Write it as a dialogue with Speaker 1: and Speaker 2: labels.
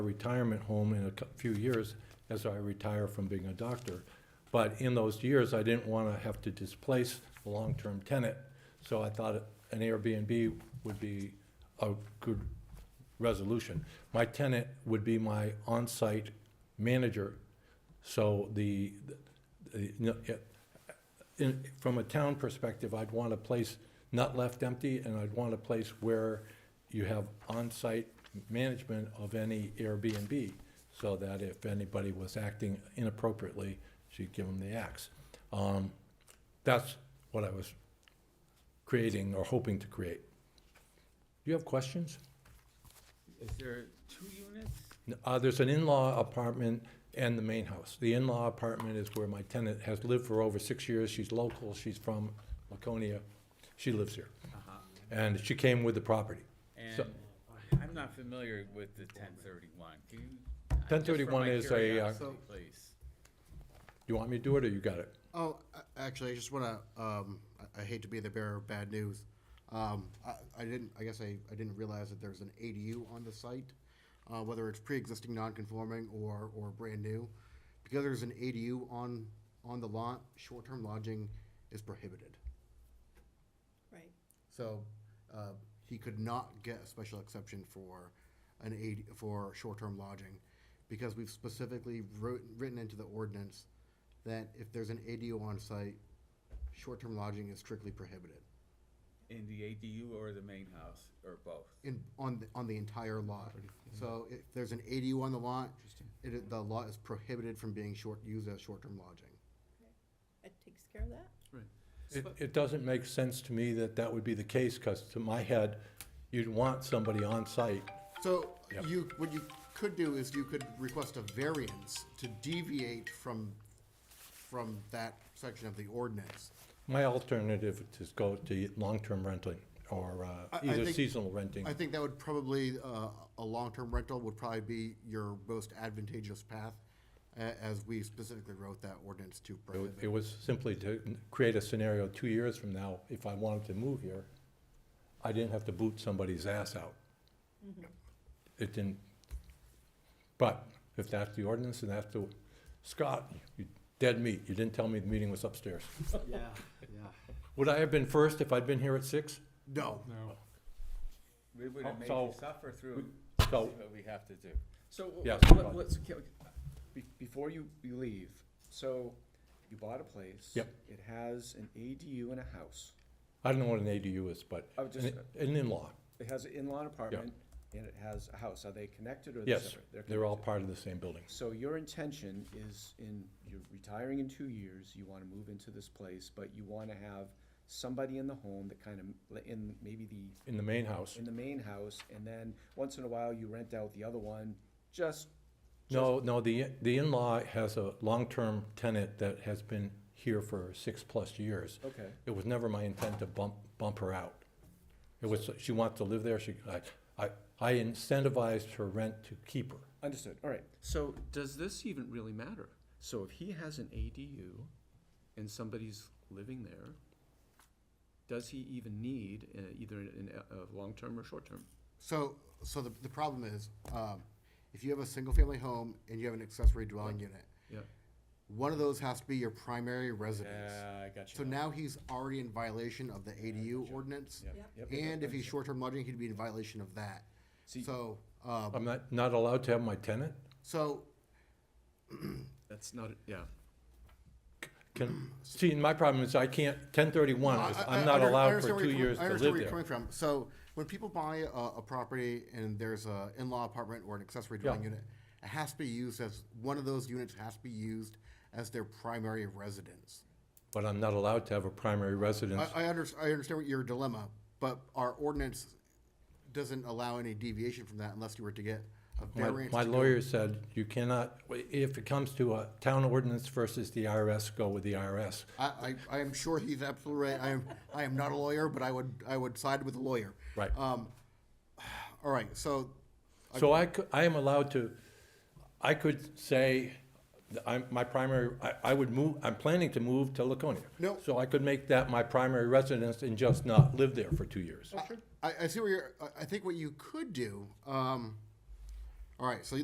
Speaker 1: retirement home in a cou- few years as I retire from being a doctor. But in those years, I didn't want to have to displace a long-term tenant. So I thought an Airbnb would be a good resolution. My tenant would be my on-site manager. So the, the- no, it- in, from a town perspective, I'd want a place not left empty, and I'd want a place where you have on-site management of any Airbnb, so that if anybody was acting inappropriately, she'd give them the axe. Um, That's what I was creating or hoping to create. Do you have questions?
Speaker 2: Is there two units?
Speaker 1: Uh, there's an in-law apartment and the main house. The in-law apartment is where my tenant has lived for over six years. She's local, she's from Laconia. She lives here.
Speaker 2: Uh-huh.
Speaker 1: And she came with the property.
Speaker 2: And
Speaker 1: So-
Speaker 2: I'm not familiar with the ten thirty-one, can you? just for
Speaker 1: 1031
Speaker 2: my
Speaker 1: is a, uh,
Speaker 2: curiosity, Please.
Speaker 1: You want me to do it or you got it?
Speaker 3: Oh, a- actually, I just want to, um, I- I hate to be the bearer of bad news. Um, I, I didn't, I guess I, I didn't realize that there's an ADU on the site, uh, whether it's pre-existing non-conforming or, or brand new. Because there's an ADU on, on the lot, short-term lodging is prohibited.
Speaker 4: Right.
Speaker 3: So, uh, he could not get a special exception for an aid, for short-term lodging, because we've specifically wrote, written into the ordinance that if there's an ADU on site, short-term lodging is strictly prohibited
Speaker 2: In the ADU or the main house, or both?
Speaker 3: in, on, the- on the entire lot. So if there's an ADU on the lot, it, is- the lot is prohibited from being short, used as short-term lodging.
Speaker 4: It takes care of that.
Speaker 1: It, it doesn't make sense to me that that would be the case, because to my head, you'd want somebody on site.
Speaker 3: So
Speaker 1: Yep.
Speaker 3: you, what you could do is you could request a variance to deviate from, from that section of the ordinance.
Speaker 1: My alternative is go to long-term renting or uh,
Speaker 3: I- I
Speaker 1: either
Speaker 3: think-
Speaker 1: seasonal renting.
Speaker 3: I think that would probably, uh, a long-term rental would probably be your most advantageous path, a- as we specifically wrote that ordinance to
Speaker 1: It wa-
Speaker 3: prohibit.
Speaker 1: It was simply to n- create a scenario two years from now, if I wanted to move here, I didn't have to boot somebody's ass out. It didn't, but if that's the ordinance and that's the, Scott, you dead meat, you didn't tell me the meeting was upstairs.
Speaker 5: Yeah, yeah.
Speaker 1: Would I have been first if I'd been here at six?
Speaker 3: No,
Speaker 5: No.
Speaker 2: We would
Speaker 1: Oh,
Speaker 2: have made
Speaker 1: so-
Speaker 2: you suffer through,
Speaker 1: so-
Speaker 2: what we have to do.
Speaker 6: So, w-
Speaker 1: Yeah,
Speaker 6: w-
Speaker 1: sorry about
Speaker 6: let- let's, ca- be- before you, you leave, so you bought a place.
Speaker 1: Yep.
Speaker 6: It has an ADU and a house.
Speaker 1: I don't know what an ADU is, but
Speaker 6: I would just-
Speaker 1: an an in-law,
Speaker 6: It has an in-law apartment and it has a house. Are they connected or they're
Speaker 1: yes,
Speaker 6: separate?
Speaker 1: they're all
Speaker 6: connected.
Speaker 1: part of the same building.
Speaker 6: So your intention is in, you're retiring in two years, you wanna move into this place, but you wanna have somebody in the home that kind of, in maybe the
Speaker 1: In the main house,
Speaker 6: in the main house, and then once in a while you rent out the other one, just.
Speaker 1: No, no, the, the in-law has a long-term tenant that has been here for six-plus years.
Speaker 6: Okay.
Speaker 1: It was never my intent to bump, bump her out. It was, she wants to live there, she, I, I, I incentivized her rent to keep her.
Speaker 6: Understood, all right. So does this even really matter? So if he has an ADU and somebody's living there, does he even need uh, either an, a, a long-term or short-term?
Speaker 3: so, so the, the problem is, um, if you have a single-family home and you have an accessory dwelling unit,
Speaker 6: Yeah,
Speaker 3: one of those has to be your primary residence.
Speaker 2: Yeah, I got
Speaker 3: So now he's already in violation of the ADU ordinance,
Speaker 6: Yep.
Speaker 3: and if he's short-term lodging, he'd be in violation of that.
Speaker 6: See-
Speaker 3: So, um,
Speaker 1: I'm not, not allowed to have my tenant?
Speaker 3: so
Speaker 6: that's not, yeah.
Speaker 1: Can, see, and my problem is I can't, ten thirty-one, is
Speaker 3: I- I-
Speaker 1: I'm
Speaker 3: I
Speaker 1: not
Speaker 3: under- I
Speaker 1: allowed
Speaker 3: understand
Speaker 1: for
Speaker 3: where
Speaker 1: two
Speaker 3: you're coming-
Speaker 1: years
Speaker 3: I
Speaker 1: to
Speaker 3: understand
Speaker 1: live
Speaker 3: where you're
Speaker 1: there.
Speaker 3: coming from. So when people buy a, a property and there's a in-law apartment or an accessory dwelling
Speaker 1: Yeah.
Speaker 3: unit, it has to be used as, one of those units has to be used as their primary residence.
Speaker 1: But I'm not allowed to have a primary residence.
Speaker 3: I, I under, I understand what your dilemma, but our ordinance doesn't allow any deviation from that unless you were to get a
Speaker 1: My-
Speaker 3: variance.
Speaker 1: My
Speaker 3: to do it.
Speaker 1: lawyer said, you cannot, if it comes to a town ordinance versus the IRS, go with the IRS.
Speaker 3: I, I, I am sure he's absolutely right. I am, I am not a lawyer, but I would, I would side with a lawyer.
Speaker 1: Right.
Speaker 3: Um, all right, so
Speaker 1: So I could, I am allowed to, I could say, that I'm, my primary, I, I would move, I'm planning to move to Laconia.
Speaker 3: No.
Speaker 1: So I could make that my primary residence and just not live there for two years.
Speaker 3: I, I see where you're, I- I think what you could do, um, all right, so